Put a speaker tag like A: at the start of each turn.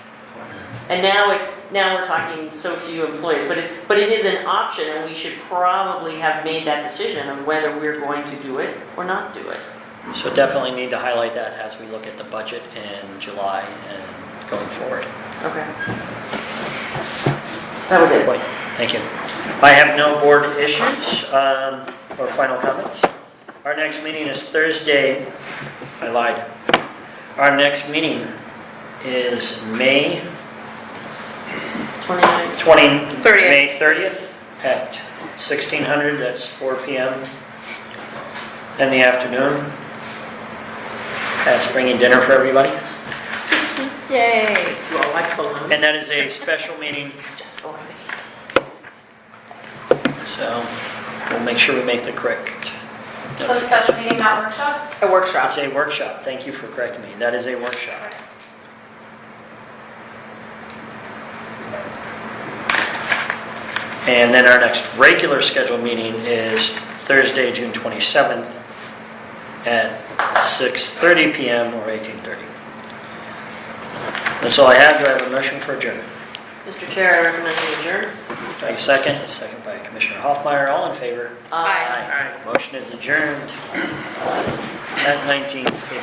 A: And now it's, now we're talking so few employees, but it's, but it is an option, and we should probably have made that decision of whether we're going to do it or not do it.
B: So definitely need to highlight that as we look at the budget in July and going forward.
A: Okay. That was it.
B: Wait, Thank you. I have no board issues um, or final comments. Our next meeting is Thursday, I lied. Our next meeting is May
A: 29.
B: 20,
C: 30th.
B: May 30th at 1600, that's 4 PM in the afternoon. That's bringing dinner for everybody.
C: Yay.
A: Well, I told him.
B: And that is a special meeting, so we'll make sure we make the correct.
D: So special meeting, not workshop?
C: A workshop.
B: It's a workshop, thank you for correcting me, that is a workshop. And then our next regular scheduled meeting is Thursday, June 27th at 6:30 PM or 18:30. That's all I have, do I have a motion for adjournment?
A: Mr. Chair, I recommend we adjourn.
B: Thank you, second, a second by Commissioner Hoffmeyer, all in favor?
C: Aye.
B: Motion is adjourned at 19:50.